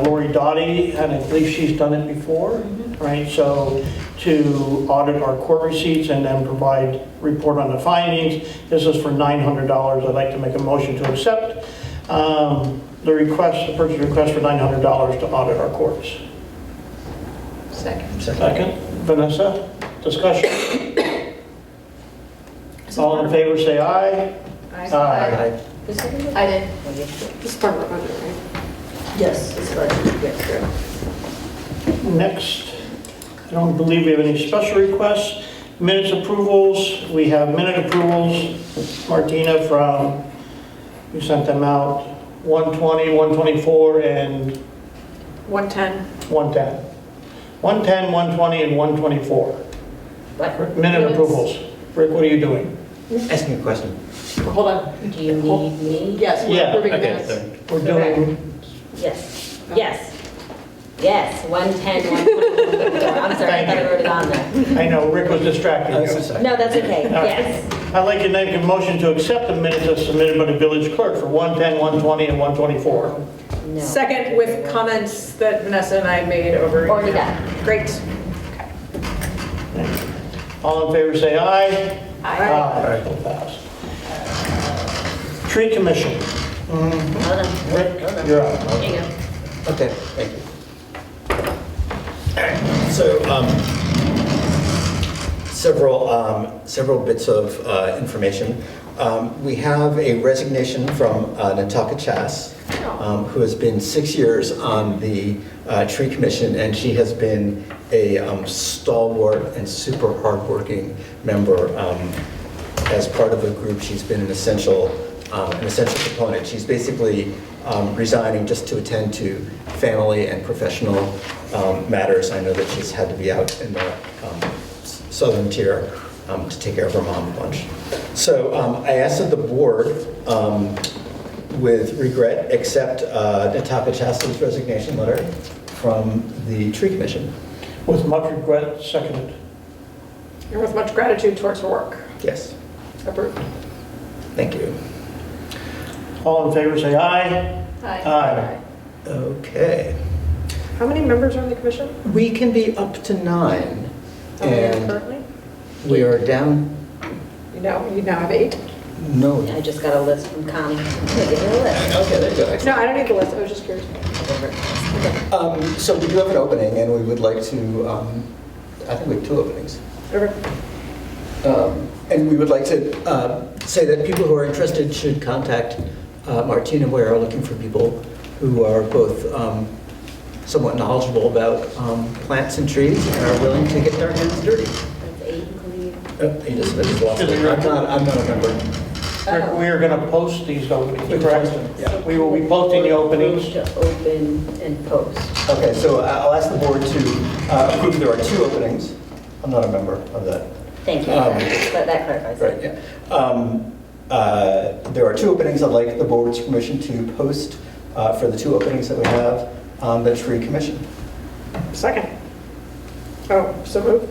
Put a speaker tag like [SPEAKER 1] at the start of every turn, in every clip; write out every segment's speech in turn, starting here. [SPEAKER 1] Lori Dottie, and I believe she's done it before, right? So to audit our court receipts and then provide report on the findings. This is for $900. I'd like to make a motion to accept um, the request, the purchase request for $900 to audit our courts.
[SPEAKER 2] Second.
[SPEAKER 1] Second, Vanessa, discussion? All in favor, say aye.
[SPEAKER 2] Is it in the- I did. This is part of our budget, right?
[SPEAKER 3] Yes, it's budget, yes,
[SPEAKER 1] Next, I don't believe we have any special requests. Minutes approvals, we have minute approvals, Martina from, we sent them out, 120, 124, and
[SPEAKER 2] 110.
[SPEAKER 1] 110. 110, 120, and 124.
[SPEAKER 3] What?
[SPEAKER 1] Minute
[SPEAKER 2] Minutes.
[SPEAKER 1] approvals. Rick, what are you doing?
[SPEAKER 4] Ask me a question.
[SPEAKER 2] Hold on.
[SPEAKER 3] Do you need me?
[SPEAKER 2] Yes, we're
[SPEAKER 1] Yeah,
[SPEAKER 2] approving the
[SPEAKER 4] Okay,
[SPEAKER 2] minutes.
[SPEAKER 4] sorry.
[SPEAKER 1] We're doing,
[SPEAKER 3] Yes, yes, yes, 110, 121. I'm sorry, I thought I wrote it on there.
[SPEAKER 1] I know, Rick was distracting
[SPEAKER 4] I'm so
[SPEAKER 1] you.
[SPEAKER 4] sorry.
[SPEAKER 3] No, that's okay,
[SPEAKER 1] All right.
[SPEAKER 3] yes.
[SPEAKER 1] I'd like to make a motion to accept the minutes as submitted by the village clerk for 110, 120, and 124.
[SPEAKER 3] No.
[SPEAKER 2] Second with comments that Vanessa and I made over.
[SPEAKER 3] Already done.
[SPEAKER 2] Great.
[SPEAKER 1] All in favor, say aye. Aye. So passed. Tree Commission,
[SPEAKER 3] Hold on, hold on, hold on.
[SPEAKER 1] you're up.
[SPEAKER 3] Hang on.
[SPEAKER 4] Okay, thank you. All right, so um, several, um, several bits of uh, information. Um, We have a resignation from uh, Nataka Chas, um, who has been six years on the uh, Tree Commission, and she has been a um, stalwart and super hardworking member um, as part of a group, she's been an essential, um, an essential component. She's basically um, resigning just to attend to family and professional um, matters. I know that she's had to be out in the um, s- southern tier um, to take care of her mom a bunch. So um, I asked that the board, um, with regret, accept uh, Nataka Chastain's resignation letter from the Tree Commission.
[SPEAKER 1] With much regret, seconded.
[SPEAKER 2] And with much gratitude towards her work.
[SPEAKER 4] Yes,
[SPEAKER 2] Approved.
[SPEAKER 4] thank you.
[SPEAKER 1] All in favor, say aye. Aye.
[SPEAKER 4] Okay.
[SPEAKER 2] How many members are on the commission?
[SPEAKER 4] We can be up to nine,
[SPEAKER 2] Are we in
[SPEAKER 4] and
[SPEAKER 2] Currently?
[SPEAKER 4] we are down,
[SPEAKER 2] You now, you now have eight?
[SPEAKER 4] no.
[SPEAKER 3] I just got a list from Connie. Give me a list.
[SPEAKER 4] Okay, there you go.
[SPEAKER 2] No, I don't need the list. I was just curious.
[SPEAKER 4] Um, So we do have an opening, and we would like to, um, I think we have two openings.
[SPEAKER 2] Over.
[SPEAKER 4] Um, And we would like to uh, say that people who are interested should contact uh, Martina. We are looking for people who are both um, somewhat knowledgeable about um, plants and trees and are willing to get their hands dirty.
[SPEAKER 3] That's eight, please.
[SPEAKER 4] Uh, You just I just lost it.
[SPEAKER 1] Is it your-
[SPEAKER 4] I'm not, I'm not a member.
[SPEAKER 1] Rick, we are going to post these openings,
[SPEAKER 4] Yeah.
[SPEAKER 1] correct? We will be posting the openings.
[SPEAKER 3] To open and post.
[SPEAKER 4] Okay, so I- I'll ask the board to uh, approve, there are two openings. I'm not a member of that.
[SPEAKER 3] Thank you,
[SPEAKER 4] Um,
[SPEAKER 3] that that clarifies. it.
[SPEAKER 4] Right, yeah. Um, uh, There are two openings, I'd like the board's permission to post uh, for the two openings that we have on the tree commission.
[SPEAKER 2] Second. Oh, so move.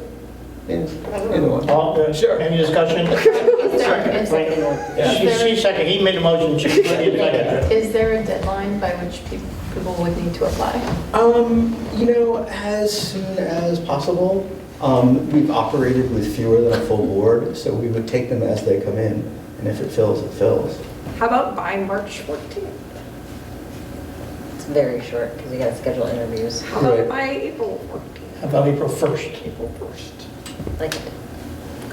[SPEAKER 4] Yeah, Either one.
[SPEAKER 1] All, uh,
[SPEAKER 4] Sure.
[SPEAKER 1] Any discussion?
[SPEAKER 3] And second one.
[SPEAKER 4] Yeah.
[SPEAKER 1] She, she seconded, he made a motion, she she seconded.
[SPEAKER 5] Is there a deadline by which peop- people would need to apply?
[SPEAKER 4] Um, You know, as soon as possible, Um, we've operated with fewer than a full board, so we would take them as they come in, and if it fills, it fills.
[SPEAKER 2] How about by March 14th?
[SPEAKER 3] It's very short, because we got to schedule interviews.
[SPEAKER 2] How about
[SPEAKER 4] Right.
[SPEAKER 2] by April 14th?
[SPEAKER 1] How about April 1st?
[SPEAKER 2] April 1st.
[SPEAKER 3] Like,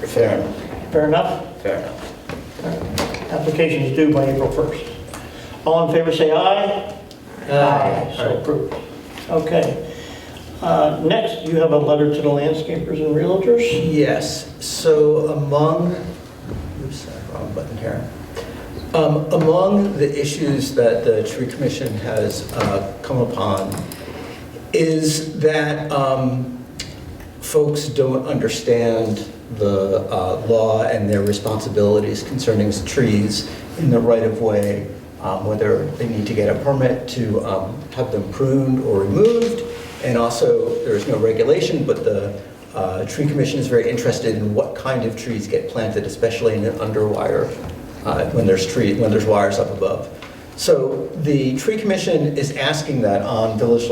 [SPEAKER 4] Fair enough.
[SPEAKER 1] Fair enough?
[SPEAKER 4] Fair enough.
[SPEAKER 1] Applications due by April 1st. All in favor, say aye. So approved. Okay. Uh, Next, you have a letter to the landscapers and realtors?
[SPEAKER 4] Yes, so among, oops, wrong button here. Um, Among the issues that the tree commission has uh, come upon is that um, folks don't understand the uh, law and their responsibilities concerning trees in the right-of-way, um, whether they need to get a permit to um, have them pruned or removed, and also, there's no regulation, but the uh, Tree Commission is very interested in what kind of trees get planted, especially in an underwire, uh, when there's tree, when there's wires up above. So the tree commission is asking that on village